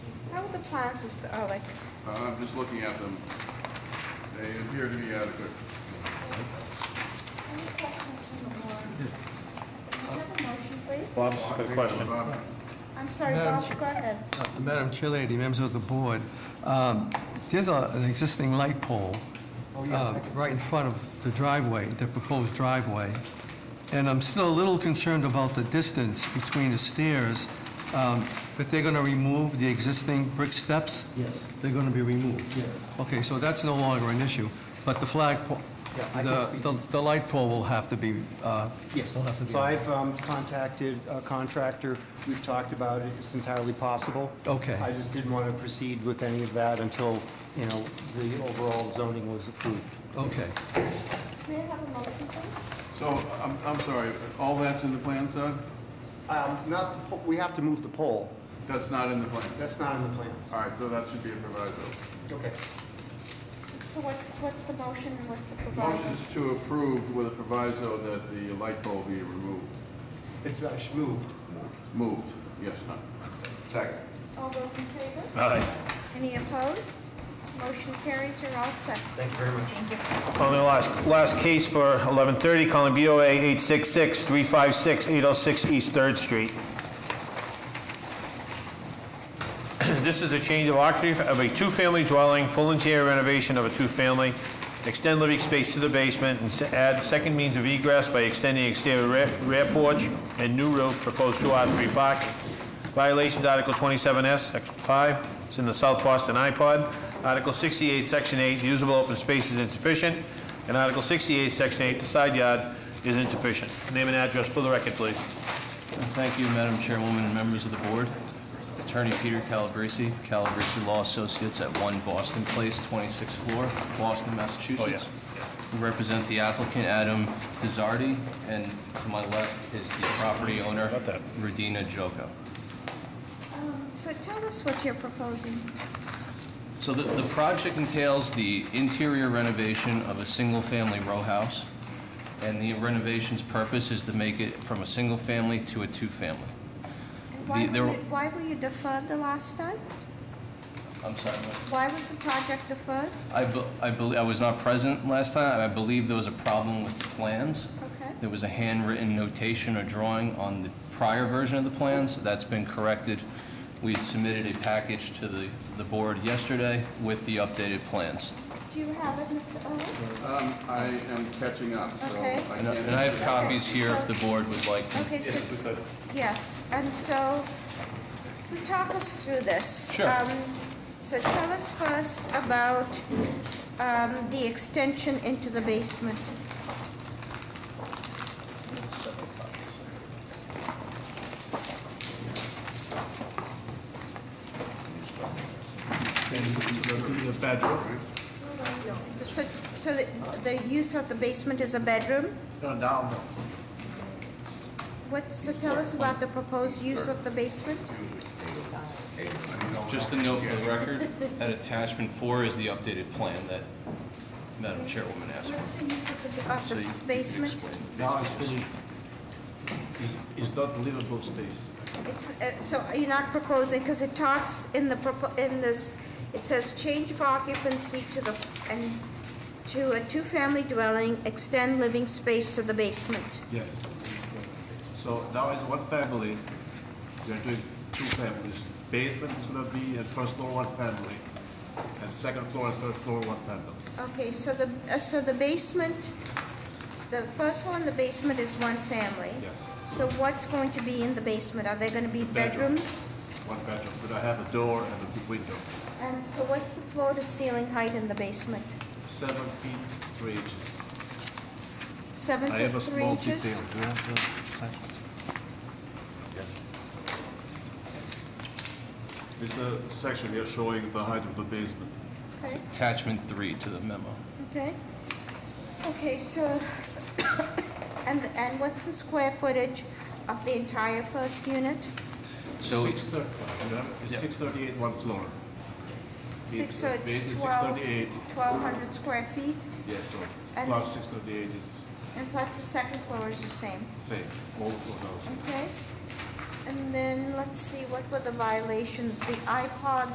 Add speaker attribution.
Speaker 1: How are the plans, Mr. Ehrlich?
Speaker 2: Uh, I'm just looking at them. They appear to be adequate.
Speaker 1: Can we have a motion, please?
Speaker 3: Bob's got a question.
Speaker 2: Bob,
Speaker 1: I'm sorry,
Speaker 4: Madam
Speaker 1: Bob, go ahead.
Speaker 4: Uh, Madam Chairlady, members of the board, um, there's a- an existing light pole
Speaker 5: Oh,
Speaker 4: uh, right in front of the driveway, the proposed driveway, and I'm still a little concerned about the distance between the stairs, um, but they're going to remove the existing brick steps?
Speaker 5: Yes,
Speaker 4: They're going to be removed?
Speaker 5: yes.
Speaker 4: Okay, so that's no longer an issue, but the flag, po-
Speaker 5: Yeah, I can
Speaker 4: the-
Speaker 5: speak.
Speaker 4: the the light pole will have to be... uh,
Speaker 5: Yes.
Speaker 4: will have to be-
Speaker 5: So I've um, contacted a contractor. We've talked about it. It's entirely possible.
Speaker 4: Okay.
Speaker 5: I just didn't want to proceed with any of that until, you know, the overall zoning was approved.
Speaker 4: Okay.
Speaker 1: May I have a motion, please?
Speaker 2: So, I'm, I'm sorry, all that's in the plan, Doug?
Speaker 5: Um, Not, the po- we have to move the pole.
Speaker 2: That's not in the plan?
Speaker 5: That's not in the plans.
Speaker 2: All right, so that should be a proviso.
Speaker 5: Okay.
Speaker 1: So what's, what's the motion, and what's the proposal?
Speaker 2: Motion is to approve with a proviso that the light pole be removed.
Speaker 5: It's uh, sh- moved.
Speaker 2: Moved, yes, no. Second.
Speaker 1: All those in favor?
Speaker 3: Aye.
Speaker 1: Any opposed? Motion carries, you're all set.
Speaker 5: Thank you very much.
Speaker 1: Thank you.
Speaker 3: On the last, last case for 11:30, calling BOA 866-356-806 East Third Street. This is a change of occupancy of a two-family dwelling, full interior renovation of a two-family, extend living space to the basement, and se- add second means of egress by extending exterior rear- rear porch and new roof, proposed two-hour, three-block. Violations, Article 27S, Section 5, it's in the South Boston iPod. Article 68, Section 8, usable open space is insufficient, and Article 68, Section 8, the side yard is insufficient. Name and address for the record, please.
Speaker 6: Thank you, Madam Chairwoman and members of the board. Attorney Peter Calabrese, Calabrese Law Associates at 1 Boston Place, 26th floor, Boston, Massachusetts. We represent the applicant, Adam Dizzardi, and to my left is the property owner, Radina Joko.
Speaker 1: Um, So tell us what you're proposing.
Speaker 6: So the, the project entails the interior renovation of a single-family row house, and the renovation's purpose is to make it from a single-family to a two-family.
Speaker 1: And Why
Speaker 6: The- there-
Speaker 1: were you- why were you deferred the last time?
Speaker 6: I'm sorry, what?
Speaker 1: Why was the project deferred?
Speaker 6: I, be- I believe, I was not present last time, I believe there was a problem with the plans.
Speaker 1: Okay.
Speaker 6: There was a handwritten notation or drawing on the prior version of the plans, that's been corrected. We had submitted a package to the, the board yesterday with the updated plans.
Speaker 1: Do you have it, Mr. Ehrlich?
Speaker 2: Um, I am catching up, so I
Speaker 1: Okay.
Speaker 6: And I- and I have
Speaker 2: can't.
Speaker 6: copies here if the board would like them.
Speaker 1: Okay, so, yes, and so, so talk us through this.
Speaker 6: Sure.
Speaker 1: Um, So tell us first about um, the extension into the basement. So, so the the use of the basement is a bedroom? What, so tell us about the proposed use of the basement?
Speaker 6: Just a note for the record, that attachment four is the updated plan that Madam Chairwoman asked for.
Speaker 1: What's the use of the, of the s- basement?
Speaker 7: Now it's finished. It's, it's not livable space.
Speaker 1: It's, uh, so you're not proposing, because it talks in the, propo- in this, it says change of occupancy to the, and to a two-family dwelling, extend living space to the basement.
Speaker 7: Yes. So now it's one family. They're doing two families. Basement is gonna be at first floor one family, and second floor and third floor one family.
Speaker 1: Okay, so the, uh, so the basement, the first one, the basement is one family.
Speaker 7: Yes.
Speaker 1: So what's going to be in the basement? Are there going to be
Speaker 7: Bedroom.
Speaker 1: bedrooms?
Speaker 7: One bedroom. But I have a door and a big window,
Speaker 1: And so what's the floor-to-ceiling height in the basement?
Speaker 7: seven feet three inches.
Speaker 1: Seven
Speaker 7: I have a
Speaker 1: foot three
Speaker 7: small
Speaker 1: inches?
Speaker 7: detail. Do you have the set? Yes. This uh, section here showing the height of the basement.
Speaker 1: Okay.
Speaker 6: Attachment three to the memo.
Speaker 1: Okay. Okay, so, and, and what's the square footage of the entire first unit?
Speaker 6: So-
Speaker 7: Six thirty, you have, it's six thirty-eight one floor.
Speaker 1: Six, so it's
Speaker 7: It's
Speaker 1: twelve,
Speaker 7: 638.
Speaker 1: twelve hundred square feet,
Speaker 7: Yes, so
Speaker 1: And
Speaker 7: plus
Speaker 1: it's-
Speaker 7: six thirty-eight is
Speaker 1: and plus the second floor is the same,
Speaker 7: same, all four houses.
Speaker 1: okay? And then, let's see, what were the violations? The iPod